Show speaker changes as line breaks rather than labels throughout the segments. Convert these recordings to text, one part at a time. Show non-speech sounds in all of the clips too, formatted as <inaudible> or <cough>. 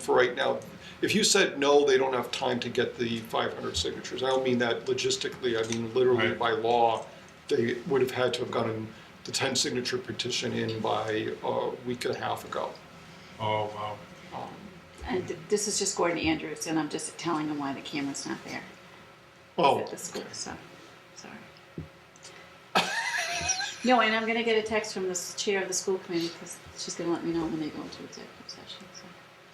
for right now, if you said no, they don't have time to get the 500 signatures. I don't mean that logistically, I mean literally
Right.
by law, they would have had to have gotten the 10 signature petition in by a week and a half ago.
Oh, wow.
And th- this is just Gordon Andrews, and I'm just telling him why the camera's not there
Oh,
at the school, so, sorry. <laughs> No, and I'm gonna get a text from the s- chair of the school committee, because she's gonna let me know when they go into executive session, so.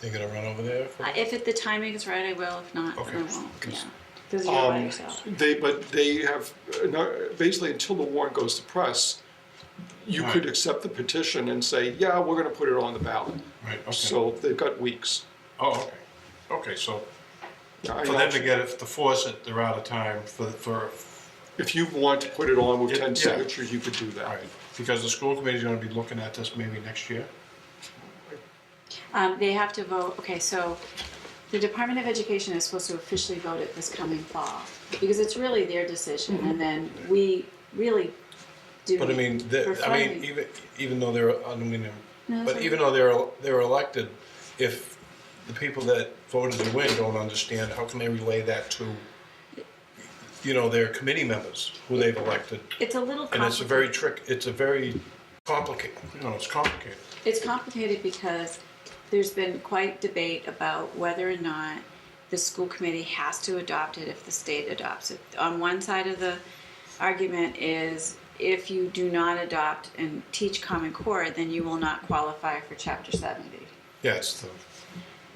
They gonna run over there? for-
Uh, If it, the timing is right, I will, if not, then I
Okay.
won't, yeah. Because you're by
Um,
yourself.
They, but they have, uh, no- basically until the warrant goes to press, you could
Right.
accept the petition and say, yeah, we're gonna put it on the ballot.
Right, okay.
So they've got weeks.
Oh, okay. Okay, so
I
for
know
them to get it, to force it, they're out of time for, for,
If you want to put it on with
Yeah,
ten
yeah.
signatures, you could do
all
that.
right. Because the school committee's gonna be looking at this maybe next year.
Um, they have to vote, okay, so the Department of Education is supposed to officially vote it this coming fall, because it's really their decision, and then we really do.
Mm-hmm. But I mean,
for
the, I mean,
funding.
even, even though they're, I don't mean,
No,
but
sorry.
even though they're, they're elected, if the people that voted to win don't understand, how can they relay that to, you know, their committee members who they've elected?
It's a little complicated.
And it's a very trick, it's a very complicated, you know, it's complicated.
It's complicated because there's been quite debate about whether or not the school committee has to adopt it if the state adopts it. On one side of the argument is if you do not adopt and teach Common Core, then you will not qualify for Chapter 70.
Yeah, it's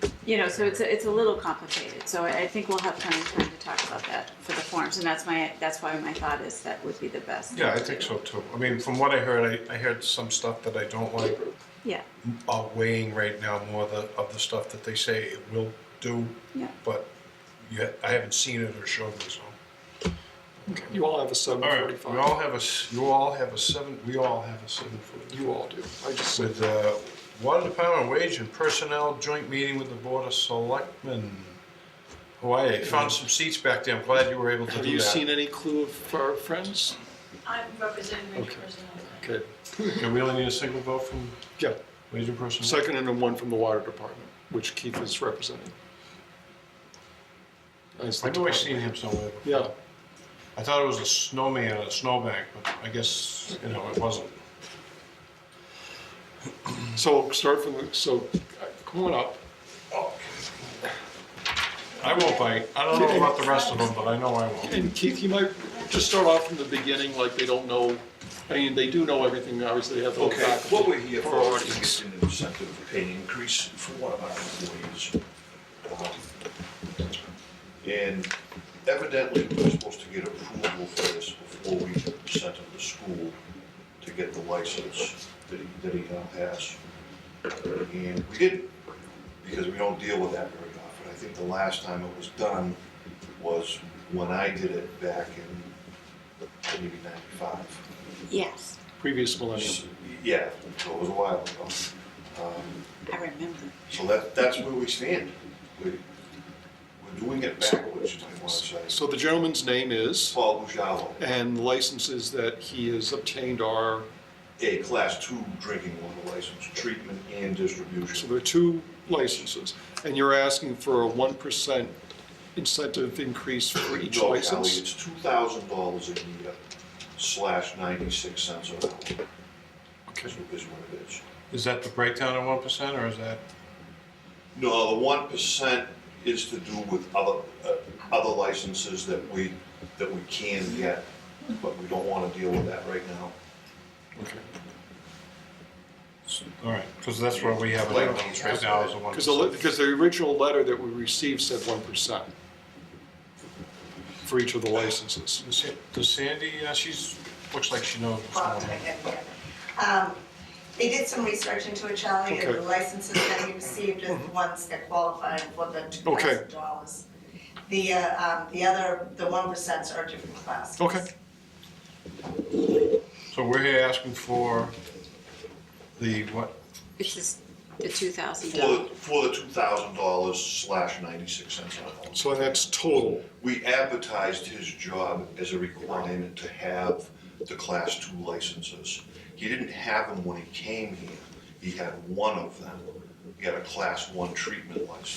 the,
You know, so it's a, it's a little complicated. So I I think we'll have plenty of time to talk about that for the forms, and that's my that's why my thought is that would be the best.
yeah, I think so too. I mean, from what I heard, I, I heard some stuff that I don't like,
Yeah,
are weighing right now more of the, of the stuff that they say it will do,
yeah.
but you, ha- I haven't seen it or shown me, so.
You all have a seven
All right, we all
forty-five.
have a, s- you all have a seven, we all have a seven foot.
You all do. I just said,
With, uh, Water Department Wage and Personnel Joint Meeting with the Board of Selectmen. Hawaii, found some seats back there, I'm glad you were able to do that.
have you seen any clue of our friends?
I'm representing Rachel Personnel.
Okay,
Okay, we only need a single vote from
yeah,
Wage and Personnel?
second and then one from the water department, which Keith is representing. As the
I know I
department.
seen him somewhere.
Yeah,
I thought it was a snowman at a snowbank, but I guess, you know, it wasn't.
so start from, the so uh, come on up.
I won't bite, I don't know about the rest of them, but I know I won't.
And Keith, you might just start off from the beginning, like they don't know, I mean, they do know everything, obviously, they have the whole
Okay,
package.
what we're here for
Priorities.
is an incentive pay increase for one of our employees. Um, And evidently, we we're supposed to get approval for this before we sent him to school to get the license that he, that he now has. And we didn't, because we don't deal with that very often. I think the last time it was done was when I did it back in maybe ninety-five.
Yes,
Previous millennium.
Yeah, so it was a while ago. Um,
I remember.
So that, that's where we stand. We- We're doing it backwards, I want to say.
So the gentleman's name is,
Paul Bujalo,
and licenses that he has obtained are,
a class two drinking water license, treatment and
so
distribution.
there are two licenses. And you're asking for a one percent incentive increase for each
No, Ally,
license?
it's two thousand dollars a year slash ninety-six cents an hour. Is what is what it is.
Is that the breakdown at one percent, or is that?
No, the one percent is to do with other, uh, other licenses that we, that we can get, but we don't want to deal with that right now.
Okay.
All right, because that's where we have it on us right now is the one.
Because the, because the original letter that we received said one percent for each of the licenses.
Does Sa- Does Sandy, uh, she's, looks like she knows what's
Well,
going on.
okay, yeah. Um, They did some research into it, Charlie, and the
Okay. Mm-hmm.
licenses that he received are the ones that qualified for the two
Okay.
thousand dollars. The, uh, um, the other, the one percents are different classes.
Okay.
So we're here asking for the what?
It's just the two thousand
For, the
dollars.
for the two thousand dollars slash ninety-six cents an hour.
So that's total.
We advertised his job as a requirement to have the class two licenses. He didn't have them when he came here, he had one of them. get a class one treatment license.